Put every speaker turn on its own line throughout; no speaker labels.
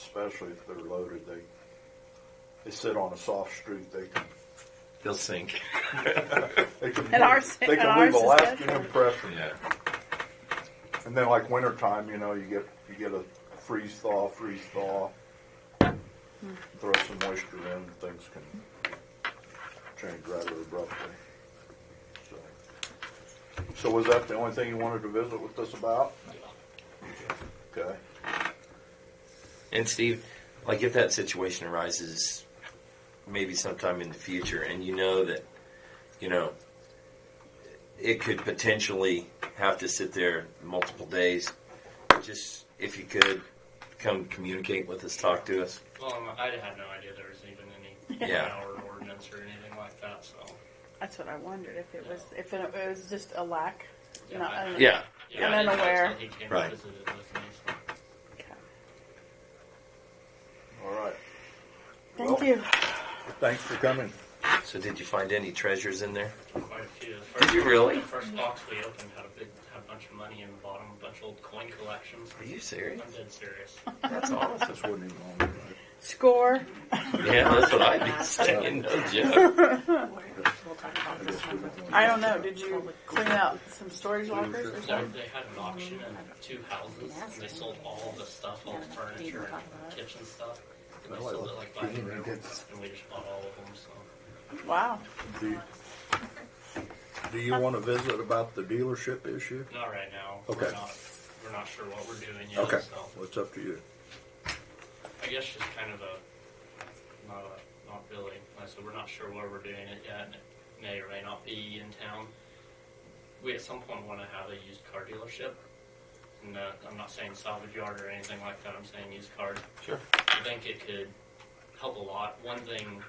especially if they're loaded, they, they sit on a soft street, they can,
They'll sink.
they can.
And ours-
They
and
can leave
ours
a
is
lasting
different.
impression.
Yeah.
And then like wintertime, you know, you get, you get a freeze thaw, freeze thaw. Throw some moisture in, things can change rather abruptly. So- So was that the only thing you wanted to visit with us about? Okay.
And Steve, like if that situation arises maybe sometime in the future and you know that, you know, it could potentially have to sit there multiple days, just if you could come communicate with us, talk to us.
Well, I'm- I had no idea there was even any
Yeah.
power ordinance or anything like that, so.
That's what I wondered if it was if it, it was just a lack. Not, I don't know.
Yeah.
Yeah,
I'm
I didn't know
unaware.
until He came
Right.
and visited with me, so.
Okay.
All right.
Thank
Well-
you.
Thanks for coming.
So did you find any treasures in there?
Quite a few. The
Did you
first-
really?
The first box we opened had a big, had a bunch of money in the bottom, a bunch of old coin collections.
Are you serious?
I'm dead serious.
That's awesome.
This wasn't even on the right.
Score.
Yeah, that's what I'd be saying. No joke.
We'll talk about
I
this
guess we
one.
don't
I
want-
don't know. Did you clean out some storage lockers or
So
something?
they had an auction in two houses, and they sold all the stuff, all the furniture and kitchen stuff. And they sold it like by the room, and we just bought all of them, so.
Wow.
Do you, do you want to visit about the dealership issue?
Not right now.
Okay.
We're not, we're not sure what we're doing yet,
Okay,
so.
well, it's up to you.
I guess just kind of a not a not really. Like I said we're not sure where we're doing it yet. and It may or may not be in town. We at some point want to have a used car dealership. And uh, I'm not saying salvage yard or anything like that. I'm saying used cars.
Sure.
I think it could help a lot. One thing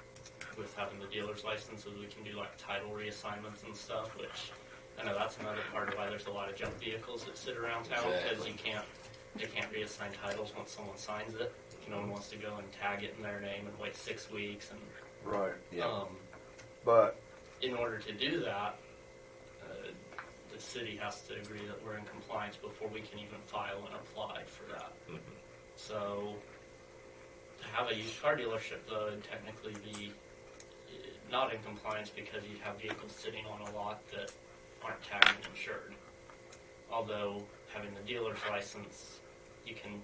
with having the dealer's license is we can do like title reassignments and stuff, which I know that's another part of why there's a lot of junk vehicles that sit around town because
Exactly.
you can't they can't reassign titles once someone signs it. No one wants to go and tag it in their name and wait six weeks. And
Right,
Yeah.
um,
but,
in order to do that, uh, the city has to agree that we're in compliance before we can even file and apply for that.
Mhm.
So, to have a used car dealership though would technically be uh, not in compliance because you'd have vehicles sitting on a lot that aren't tagged and insured. Although having the dealer's license, you can,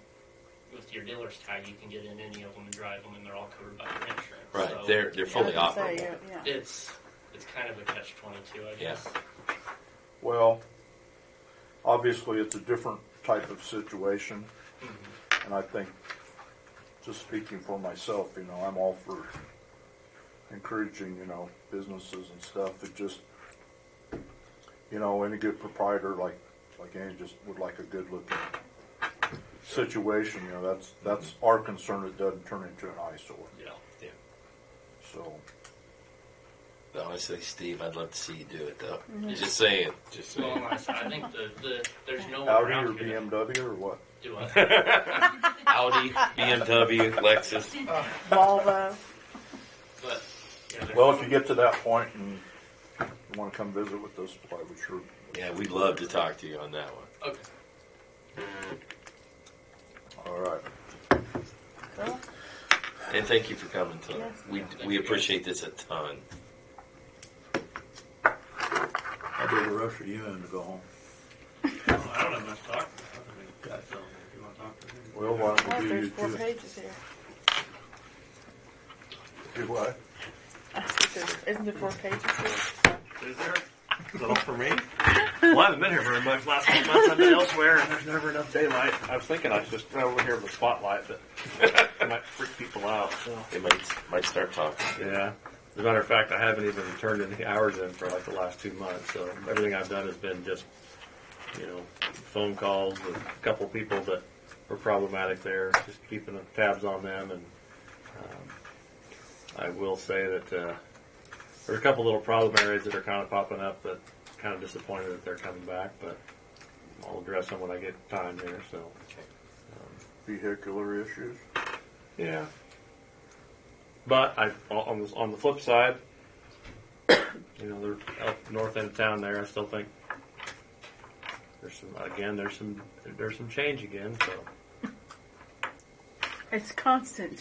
with your dealer's tag, you can get in any of them and drive them, and they're all covered by your insurance.
Right.
So-
They're they're fully
I was gonna
operable.
say, yeah, yeah.
it's it's kind of a catch twenty two, I guess.
well, obviously, it's a different type of situation. And I think, just speaking for myself, you know, I'm all for encouraging, you know, businesses and stuff. It just, you know, any good proprietor like, like Andy just would like a good looking situation, you know, that's, that's our concern. It doesn't turn into an eyesore.
Yeah.
Yeah.
So,
Honestly, Steve, I'd love to see you do it though. Just saying. Just
Well,
saying.
and I said, I think the, the there's no way
Audi or
around here that
BMW or what?
do it.
Audi, BMW, Lexus.
Volvo.
But yeah, there's
Well,
no-
if you get to that point and you want to come visit with us, I would sure.
Yeah, we'd love to talk to you on that one.
okay.
All right.
Cool.
And thank you for coming tonight.
Yes.
We,
Thank
we
you.
appreciate this a ton.
I'll be the rush of you in to go home.
I don't have much to talk about. I mean, so if you want to talk to me.
Well, why
Well,
don't we do
there's
you
four
two?
pages here.
Do what?
I think there's- Isn't there four pages here?
Is there? Is that all for me? Well, I haven't been here very much. Last couple months I've been elsewhere, and there's never enough daylight. I was thinking I should just sit over here with a spotlight, but it might freak people out. So.
They might, might start talking.
Yeah. As a matter of fact, I haven't even turned any hours in for like the last two months. So everything I've done has been just, you know, phone calls with a couple people that were problematic there, just keeping the tabs on them. And um, I will say that uh, there's a couple little problem areas that are kind of popping up that kind of disappointed that they're coming back, but I'll address them when I get time here. So,
Vehicular issues?
yeah. But I on the, on the flip side, you know, they're up north end of town there. I still think there's some again. There's some there's some change again. So
It's constant.